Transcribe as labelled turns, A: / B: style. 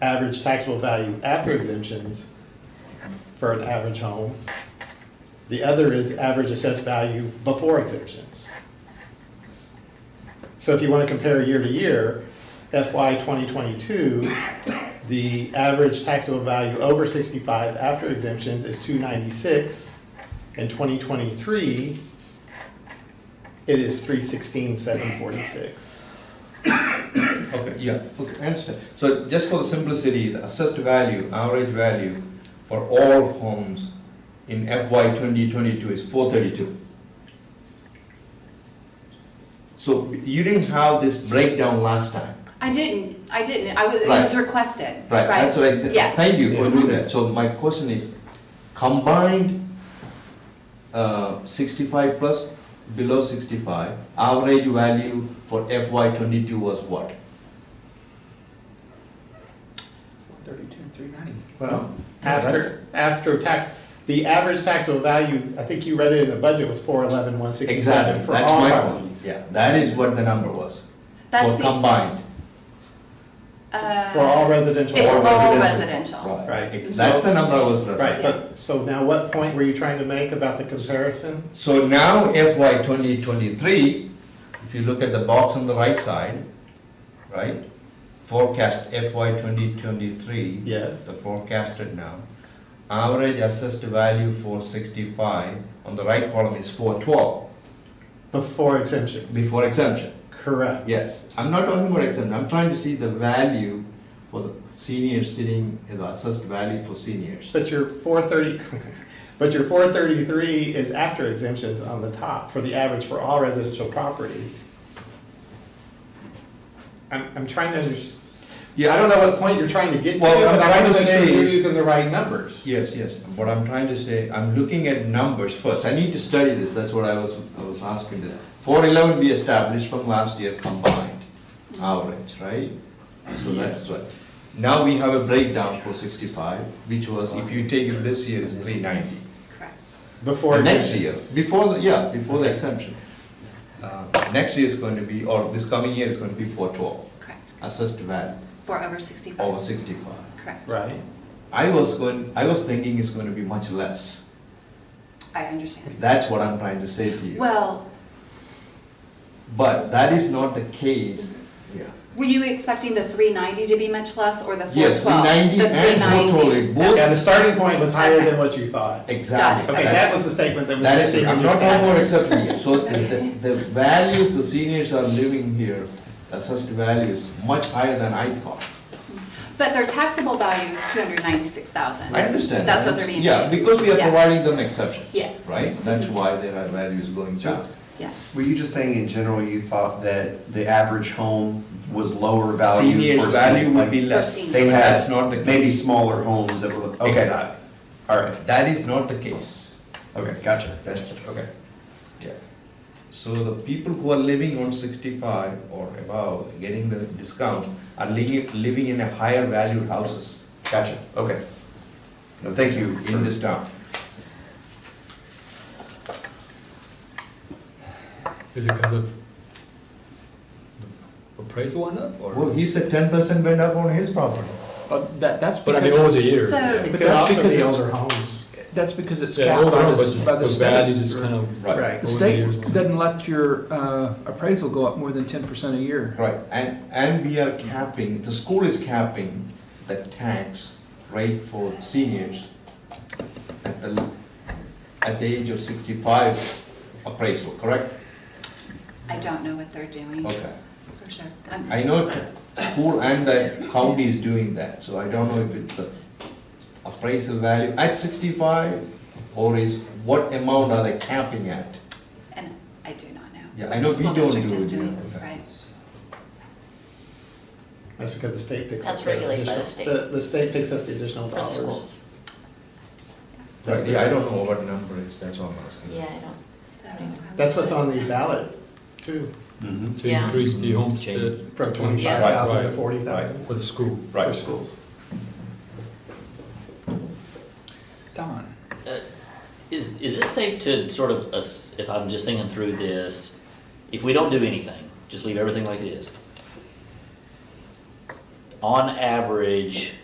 A: average taxable value after exemptions for an average home. The other is average assessed value before exemptions. So if you want to compare year to year, FY 2022, the average taxable value over 65 after exemptions is 296. In 2023, it is 316,746.
B: Okay, yeah, okay, I understand. So just for the simplicity, the assessed value, average value for all homes in FY 2022 is 432. So you didn't have this breakdown last time.
C: I didn't, I didn't, I was, it
B: Right.
C: was requested,
B: Right,
C: right?
B: that's what I, th-
C: Yeah. Mm-hmm.
B: thank you for
A: Yeah.
B: doing that. So my question is, combined uh, 65 plus, below 65, average value for FY '22 was what?
D: 32, 390.
A: Well,
B: No, that's-
A: after, after tax, the average taxable value, I think you read it in the budget, was 411,167
B: Exactly,
A: for
B: that's
A: all
B: my point.
A: properties.
B: Yeah, that is what the number was, for
C: That's the,
B: combined.
C: uh.
A: For all residential.
C: It's
B: or
A: properties.
C: all residential.
A: Right.
B: ex- That's the number I was referring.
A: Right, but, so now what point were you trying to make about the comparison?
B: So now FY 2023, if you look at the box on the right side, right? Forecast FY 2023.
A: Yes.
B: The forecasted now. Average assessed value 465, on the right column is 412,
A: Before exemptions.
B: before exemption.
A: Correct.
B: Yes, I'm not talking about exemption, I'm trying to see the value for the seniors sitting, the assessed value for seniors.
A: But your 430, but your 433 is after exemptions on the top for the average for all residential property. I'm, I'm trying to understand. I don't know what point you're trying to get to,
B: Well,
A: but
B: I'm
A: I
B: trying
A: want
B: to
A: to make
B: say
A: sure you're
B: is-
A: using the right numbers.
B: Yes, yes, what I'm trying to say, I'm looking at numbers first, I need to study this, that's what I was, I was asking this. Four eleven we established from last year combined, average, right? So that's what. Now we have a breakdown for sixty-five, which was, if you take it this year, it's three ninety.
C: Correct.
A: Before.
B: Next year,
A: exemptions.
B: before, the yeah, before the exemption. Uh, Next year is going to be, or this coming year is going to be four twelve,
C: Correct,
B: assessed value
C: for over sixty-five.
B: over sixty-five.
C: Correct.
A: Right.
B: I was going, I was thinking it's going to be much less.
C: I understand.
B: That's what I'm trying to say to you.
C: Well,
B: But that is not the case. Yeah.
C: were you expecting the three ninety to be much less, or the four twelve?
B: Yes, 390 and 412, both-
A: Yeah, the starting point was higher than what you thought.
B: Exactly.
A: Okay, that was the statement that was.
B: That is,
A: missing when
B: I'm
A: you
B: not
A: started.
B: talking about accepting it. So the, the- the values the seniors are living here, the assessed value is much higher than I thought.
C: But their taxable value is two hundred ninety-six thousand.
B: I understand.
C: That's what they're being.
B: Yeah, because we are
C: Yeah.
B: providing them exceptions.
C: Yes.
B: Right? That's why their values going down.
C: Yeah,
D: Were you just saying in general, you thought that the average home was lower value?
B: Seniors'
D: for
B: value
D: some-
B: would be
C: For
B: less.
C: seniors.
D: They had
B: That's not the case.
D: Maybe smaller homes that were, okay,
B: Exactly.
D: all right,
B: That is not the case.
D: okay, gotcha, gotcha, okay.
B: Yeah. So the people who are living on sixty-five or above, getting the discount, are living, living in a higher valued houses.
D: Gotcha, okay. No, thank you.
B: In this town.
E: Is it because of the appraisal went up or?
B: Well, he said ten percent went up on his property.
F: But Uh, that, that's
E: But I mean,
F: because,
E: over the years.
C: So-
E: yeah.
A: It
F: But
A: could
F: that's
A: also
F: because
A: be
F: it-
A: older homes.
F: that's because it's
E: Yeah,
F: capped by
E: overall, but
F: the,
E: just
F: by the
E: the
F: state.
E: value just kind of.
A: Right.
F: The
E: over the years.
F: state doesn't let your uh, appraisal go up more than ten percent a year.
B: Right, and, and we are capping, the school is capping the tax rate for seniors at the, at the age of sixty-five appraisal, correct?
C: I don't know what they're doing,
B: Okay.
C: for sure. I'm-
B: I know school and the county is doing that, so I don't know if it's the appraisal value at sixty-five or is, what amount are they capping at?
C: And I do not know.
B: Yeah,
C: what
B: I know
C: the
B: we
C: school
B: don't
C: district
B: do
C: is
B: it here.
C: doing, Right.
A: That's because the state picks up.
G: That's
A: the
G: regulated by the
A: additional-
G: state.
A: The, the state picks up the additional
G: For the
A: dollars.
G: schools.
B: Right, yeah, I don't know what number is, that's all I'm asking.
G: Yeah, I don't,
C: So, um,
A: That's what's on the ballot too,
D: Mhm.
E: To
G: Yeah.
E: increase the homestead
A: from twenty-five thousand to
E: Mm-hmm. Right, right,
A: forty thousand
E: for the school.
A: for schools.
F: Don,
G: uh, is, is it safe to sort of, ass- if I'm just thinking through this, if we don't do anything, just leave everything like it is? on average,